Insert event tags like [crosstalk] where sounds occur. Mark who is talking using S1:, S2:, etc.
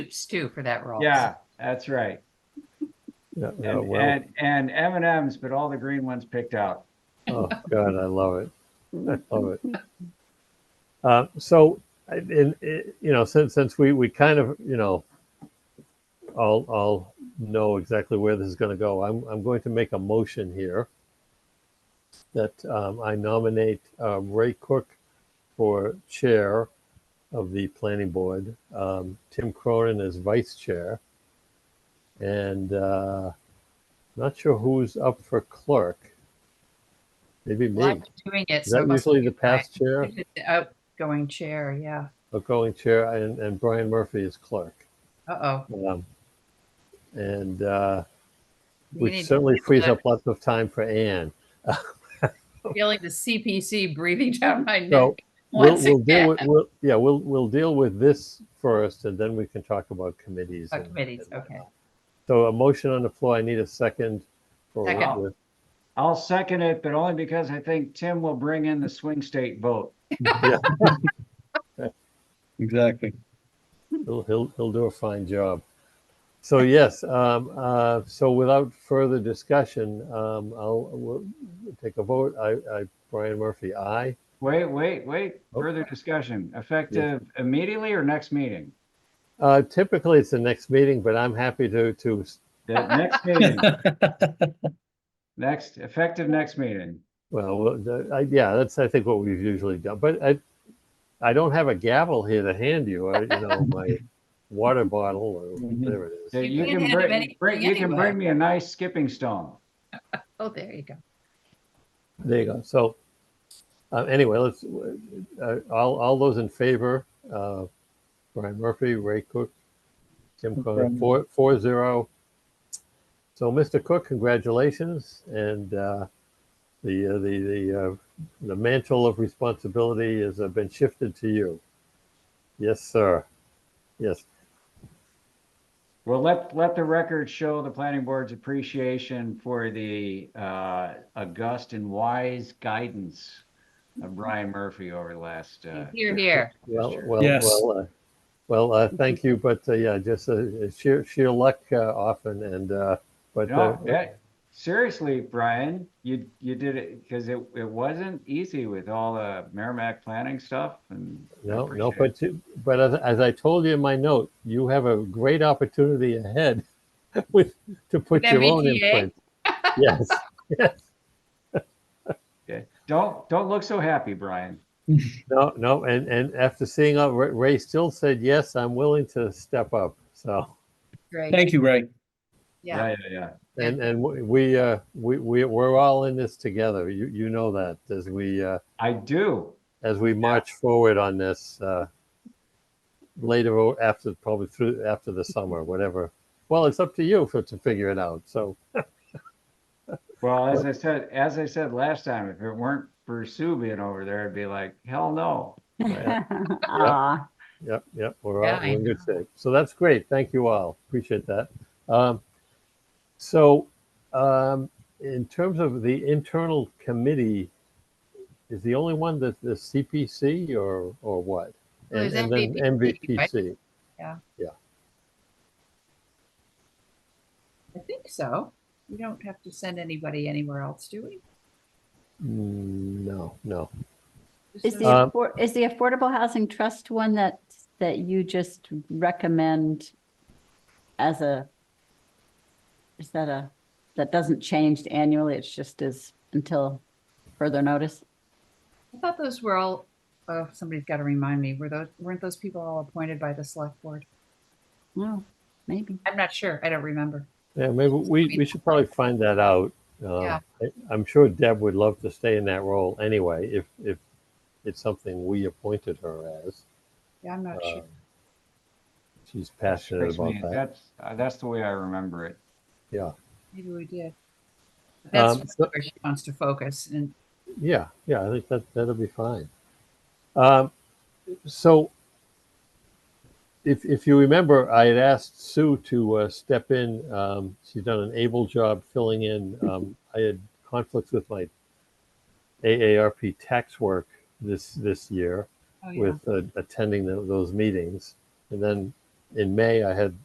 S1: Stoops too for that role.
S2: Yeah, that's right.
S3: Yeah,
S2: And,
S3: oh, well,
S2: and and M and M's, but all the green ones picked out.
S3: oh God, I love it. I love it. Uh, so, I- in, in, you know, since since we we kind of you know, all all know exactly where this is going to go. I'm I'm going to make a motion here that um, I nominate uh, Ray Cook for chair of the planning board, um, Tim Cronin as vice chair, and uh, not sure who's up for clerk. Maybe me.
S1: Well, I'm doing it.
S3: Is
S1: so it
S3: that
S1: must
S3: usually
S1: be
S3: the past chair,
S1: Brian. It's the Outgoing chair, yeah.
S3: outgoing chair, and, and Brian Murphy is clerk.
S1: Uh-oh.
S3: Um, and uh,
S1: We
S3: which
S1: need-
S3: certainly
S1: it's
S3: frees
S1: the-
S3: up lots of time for Anne.
S1: Feeling the CPC breathing [laughs] down my
S3: So
S1: neck.
S3: we'll,
S1: once
S3: we'll deal
S1: again. [laughs]
S3: with we'll, yeah we'll we'll deal with this first, and then we can talk about committees.
S1: Oh,
S3: and-
S1: Committees,
S3: and,
S1: okay.
S3: uh, So a motion on the floor. I need a second. For
S1: Second.
S3: Whitworth.
S2: I'll second it, but only because I think Tim will bring in the swing state vote.
S4: Exactly.
S3: He'll, he'll he'll do a fine job. So yes. Um, uh, so without further discussion, um, I'll we'll take a vote. I, I Brian Murphy, aye.
S2: Wait, wait, wait.
S3: Oh.
S2: Further discussion. Effective immediately or next meeting?
S3: Uh, typically, it's the next meeting, but I'm happy to to
S2: The
S3: [laughs]
S2: next meeting. Next, effective next meeting.
S3: well, well, the- I, yeah, that's I think what we've usually done. But I, I don't have a gavel here to hand you. I, you know, my water bottle or
S4: Mhm.
S3: whatever it is.
S2: That
S1: You
S2: You
S1: can't
S2: can
S1: hand him
S2: bring,
S1: anything
S2: bring- you can
S1: anyway.
S2: bring me a nice skipping stone.
S1: Oh, there you go.
S3: There you go. So, uh, anyway, let's uh, all all those in favor: uh, Brian Murphy, Ray Cook, Tim Cronin,
S4: Okay.
S3: four four zero. So, Mr. Cook, congratulations, and uh, the uh, the the uh, the mantle of responsibility has uh, been shifted to you. Yes, sir. Yes.
S2: Well, let, let the record show the planning board's appreciation for the uh, august and wise guidance of Brian Murphy over the last. uh,
S1: Here, here.
S3: Well,
S2: Sure.
S3: well,
S4: Yes.
S3: well, uh, well. Uh, thank you, but uh, yeah, just uh, sheer sheer luck uh, often, and uh, but uh,
S2: No, that- seriously, Brian, you, you did it because it, it wasn't easy with all the Merrimack planning stuff and. I
S3: No, no,
S2: appreciate it.
S3: but you, but as, as I told you in my note, you have a great opportunity ahead [laughs] with to put
S1: With
S3: your own
S1: MBTA?
S3: imprint. yes,
S2: Okay. Don't, don't look so happy, Brian.
S3: no, no, and and after seeing how Ray- Ray still said yes, I'm willing to step up. So
S1: Great.
S4: Thank you, Ray.
S1: Yeah.
S2: Yeah, yeah,
S3: and and we uh we we we're all in this together. You you know that as we uh,
S2: I do.
S3: as we march forward on this uh, later o- after probably through after the summer, whatever. Well, it's up to you for to figure it out. So.
S2: Well, as I said, as I said last time, if it weren't for Sue being over there, I'd be like, hell no.
S5: Aw.
S3: Yep, yep, we're
S1: Yeah,
S3: all, we're
S1: I
S3: in good shape. So that's great. Thank you all. Appreciate that. Um, so, um, in terms of the internal committee, is the only one that the CPC or or what?
S1: Well,
S3: And,
S1: there's
S3: and then
S1: MVPC, right?
S3: MVPC.
S1: I think so. We don't have to send anybody anywhere else, do we?
S3: Mm, No, no.
S1: Just
S5: Is the,
S1: those-
S3: Uh, Um,
S5: affor- is the Affordable Housing Trust one that, that you just recommend as a, is that a, that doesn't change annually, it's just as, until further notice?
S1: I thought those were all, oh, somebody's got to remind me, were those, weren't those people all appointed by the select board?
S5: No, maybe.
S1: I'm not sure. I don't remember.
S3: Yeah, maybe we, we should probably find that out. Um,
S1: Yeah.
S3: I, I'm sure Deb would love to stay in that role anyway, if if it's something we appointed her as.
S1: Yeah, I'm not sure.
S3: Um, She's passionate
S2: Trust me,
S3: about that.
S2: That's, uh, that's the way I remember it.
S1: Maybe we did. That's
S3: Um, so-
S1: where she wants to focus and
S3: Yeah, yeah, I think that, that'll be fine. Um, so if, if you remember, I had asked Sue to uh, step in. Um, she's done an able job filling in. Um, I had conflicts with my AARP tax work this, this year.
S1: oh, yeah.
S3: with uh, attending tho- those meetings. And then in May, I had